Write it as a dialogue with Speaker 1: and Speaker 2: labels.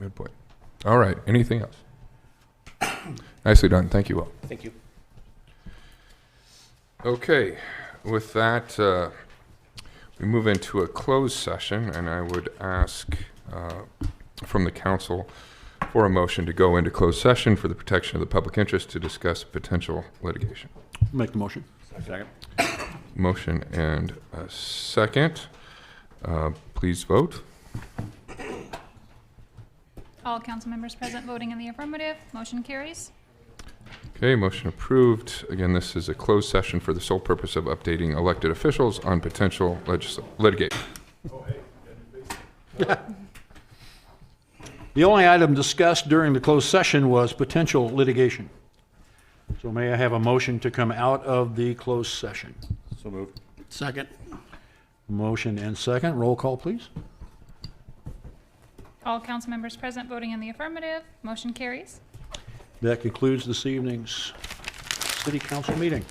Speaker 1: Good point. All right, anything else? Nicely done, thank you all.
Speaker 2: Thank you.
Speaker 1: Okay, with that, uh, we move into a closed session, and I would ask uh, from the council for a motion to go into closed session for the protection of the public interest to discuss potential litigation.
Speaker 3: Make the motion.
Speaker 2: Second.
Speaker 1: Motion and a second. Uh, Please vote.
Speaker 4: All council members present voting in the affirmative, motion carries.
Speaker 1: Okay, motion approved. Again, this is a closed session for the sole purpose of updating elected officials on potential legis- litigation.
Speaker 3: The only item discussed during the closed session was potential litigation. So may I have a motion to come out of the closed session?
Speaker 2: So moved.
Speaker 3: Second. Motion and second. Roll call, please.
Speaker 4: All council members present voting in the affirmative, motion carries.
Speaker 3: That concludes this evening's city council meeting.